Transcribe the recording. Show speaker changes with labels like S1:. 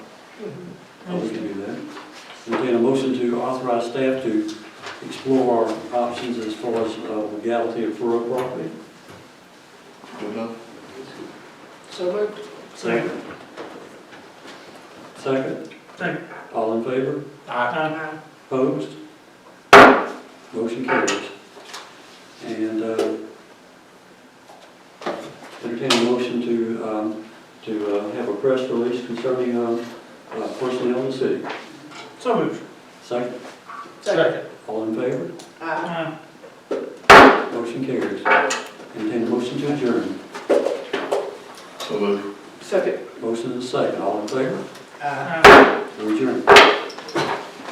S1: Oh, We can do that. Entertain a motion to authorize staff to explore our options as far as uh, legality of rural property.
S2: Good enough?
S3: So moved.
S1: Second. Second?
S4: Second.
S1: All in favor?
S3: Aye.
S1: Opposed? Motion carries. And uh, entertain a motion to, um, to uh, have a press release concerning um, uh, personnel in the city.
S4: So moved.
S1: Second?
S4: Second.
S1: All in favor?
S3: Aye.
S1: Motion carries. Entertain a motion to adjourn.
S2: So moved.
S3: Second.
S1: Motion is second. All in favor?
S3: Aye.
S1: We adjourn.